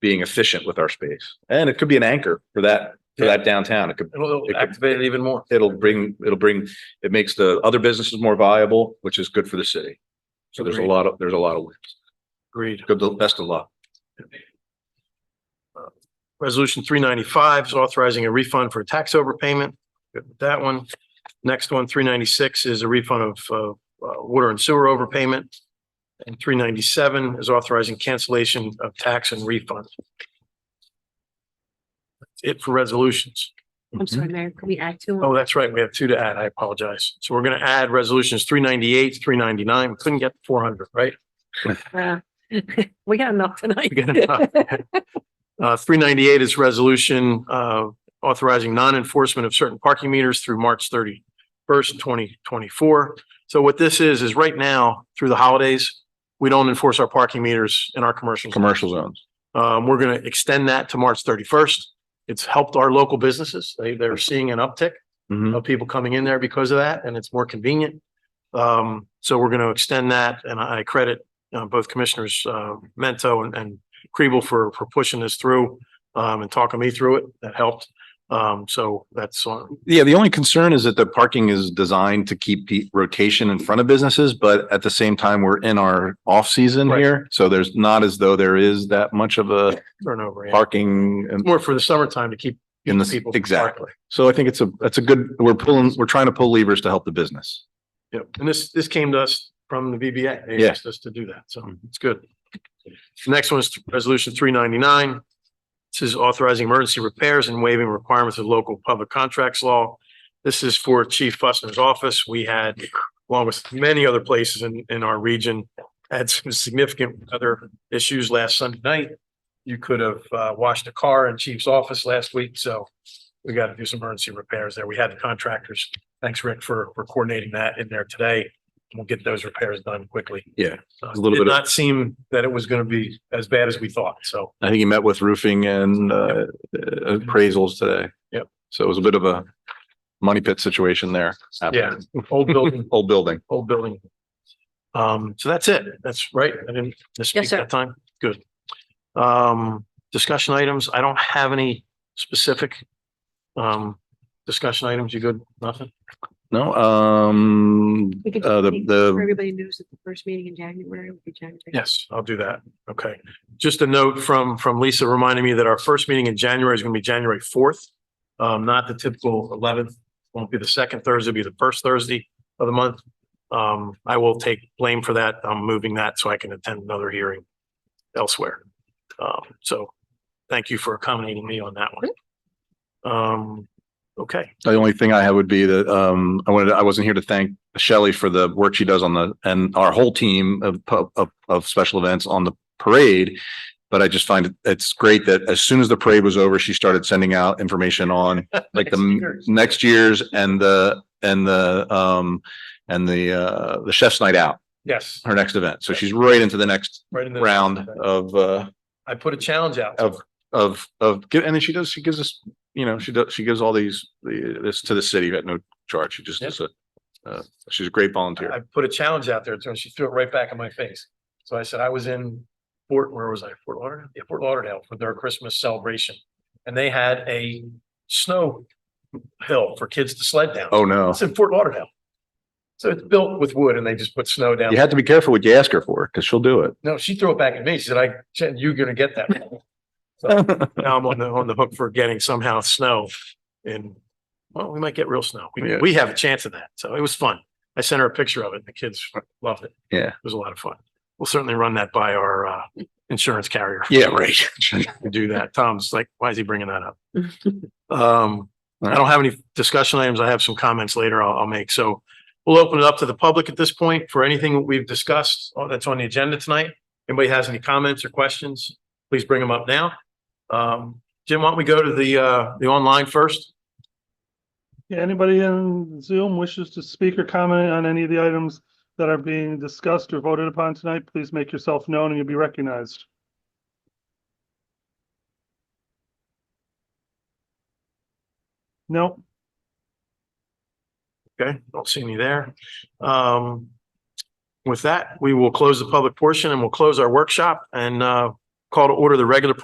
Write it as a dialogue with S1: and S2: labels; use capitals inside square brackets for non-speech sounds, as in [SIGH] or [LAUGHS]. S1: being efficient with our space. And it could be an anchor for that, for that downtown. It could,
S2: It'll
S1: It could-
S2: activate it even more.
S1: it'll bring, it'll bring, it makes the other businesses more viable, which is good for the city. So there's a
S2: Agreed.
S1: lot of, there's a lot of wins.
S2: Agreed.
S1: Good, best of luck.
S2: Resolution three ninety-five is authorizing a refund for a tax overpayment. Good with that one. Next one, three ninety-six is a refund of, uh, uh, water and sewer overpayment. And three ninety-seven is authorizing cancellation of tax and refund. That's It for resolutions.
S3: I'm
S1: Mm-hmm.
S3: sorry, Mayor, can we add to?
S2: Mm-hmm. Oh, that's right. We have two to add. I apologize. So we're going to add resolutions three ninety-eight, three ninety-nine. We couldn't get four hundred, right?
S3: Uh, [LAUGHS] We got enough tonight.
S2: We got enough. Uh, three ninety-eight is resolution, uh, authorizing non-enforcement of certain parking meters through March thirty-first, twenty twenty-four. So what this is, is right now, through the holidays, we don't enforce our parking meters in our commercial. zones.
S1: Commercial zones.
S2: Um, we're going to extend that to March thirty-first. It's helped our local businesses. They, they're seeing an uptick
S1: Mhm.
S2: of people coming in there because of that, and it's more convenient. Um, so we're going to extend that, and I credit uh, both Commissioners uh, Mento and, and Kriebel for, for pushing this through um, and talking me through it. That helped. Um, so that's on,
S1: Yeah, the only concern is that the parking is designed to keep the rotation in front of businesses, but at the same time, we're in our off-season
S2: Right.
S1: here. So there's not as though there is that much of a
S2: turnover. yeah.
S1: parking. and-
S2: More for the summertime to keep
S1: In the-
S2: people.
S1: exactly. So I think it's a, that's a good, we're pulling, we're trying to pull levers to help the business.
S2: Yep, and this, this came to us from the VBA. They
S1: Yeah. Mm-hmm.
S2: asked us to do that, so it's good. The Next one is Resolution three ninety-nine. This is authorizing emergency repairs and waiving requirements of local public contracts law. This is for Chief Fussner's office. We had, along with many other places in, in our region, had some significant other issues last Sunday night. You could have, uh, washed a car in Chief's office last week, so we got to do some emergency repairs there. We had the contractors Thanks, Rick, for, for coordinating that in there today. We'll get those repairs done quickly.
S1: Yeah,
S2: Uh,
S1: a little bit
S2: It did
S1: of-
S2: not seem that it was going to be as bad as we thought, so.
S1: I think he met with roofing and uh, appraisals today.
S2: Yep.
S1: So it was a bit of a money pit situation there.
S2: Yeah, old building,
S1: Old building.
S2: old building. Um, so that's it. That's right. I didn't misspeak
S3: sir.
S2: that time. Good. Um, discussion items. I don't have any specific um, discussion items. You good? Nothing?
S1: No, um,
S3: [LAUGHS] We could
S1: uh, the,
S3: just- For
S1: the,
S3: everybody knows that the first meeting in January would be January.
S2: Yes, I'll do that. Okay. Just a note from, from Lisa reminding me that our first meeting in January is going to be January fourth. Um, not the typical eleventh, won't be the second Thursday, it'll be the first Thursday of the month. Um, I will take blame for that. I'm moving that so I can attend another hearing elsewhere. Um, so thank you for accommodating me on that one. Um, okay,
S1: the only thing I had would be that, um, I wanted, to- I wasn't here to thank Shelley for the work she does on the, and our whole team of, pu- of, of special events on the parade. But I just find it, it's great that as soon as the parade was over, she started sending out information on like the
S2: Next
S1: m-
S2: year's.
S1: next year's and the, and the, um, and the, uh, the chef's night out,
S2: yes.
S1: her next event. So she's right into the next
S2: right in the-
S1: round of, uh,
S2: I put a challenge out.
S1: of, of, of, gi- and then she does, she gives us, you know, she does, she gives all these, the- this to the city at no charge. She just
S2: Yeah.
S1: is a, uh, she's a great volunteer.
S2: I put a challenge out there to her and she threw it right back in my face. So I said, I was in Fort, where was I? Fort Lauderdale? Yeah, Fort Lauderdale for their Christmas celebration. And they had a snow hill for kids to sled down.
S1: Oh, no.
S2: It's in Fort Lauderdale. So it's built with wood and they just put snow down.
S1: You have to be careful what you ask her for because she'll do
S2: [LAUGHS]
S1: it.
S2: No, she threw it back at me. She said, I, Jen, you're gonna get that. So now I'm on the, on the hook for getting somehow snow and, well, we might get real snow. We,
S1: Yeah.
S2: we have a chance of that. So it was fun. I sent her a picture of it. and The kids loved it.
S1: Yeah.
S2: It was a lot of fun. We'll certainly run that by our, uh, insurance carrier.
S1: Yeah, right. [LAUGHS]
S2: to do that. Tom's like, why is he bringing that up?
S3: [LAUGHS]
S2: Um, I don't have any discussion items. I have some comments later I'll, I'll make. So we'll open it up to the public at this point for anything that we've discussed uh, that's on the agenda tonight. Anybody has any comments or questions, please bring them up now. Um, Jim, why don't we go to the, uh, the online first?
S4: Yeah, anybody in Zoom wishes to speak or comment on any of the items that are being discussed or voted upon tonight, please make yourself known and you'll be recognized. No,
S2: Okay, don't see any there. Um, with that, we will close the public portion and we'll close our workshop and, uh, call to order the regular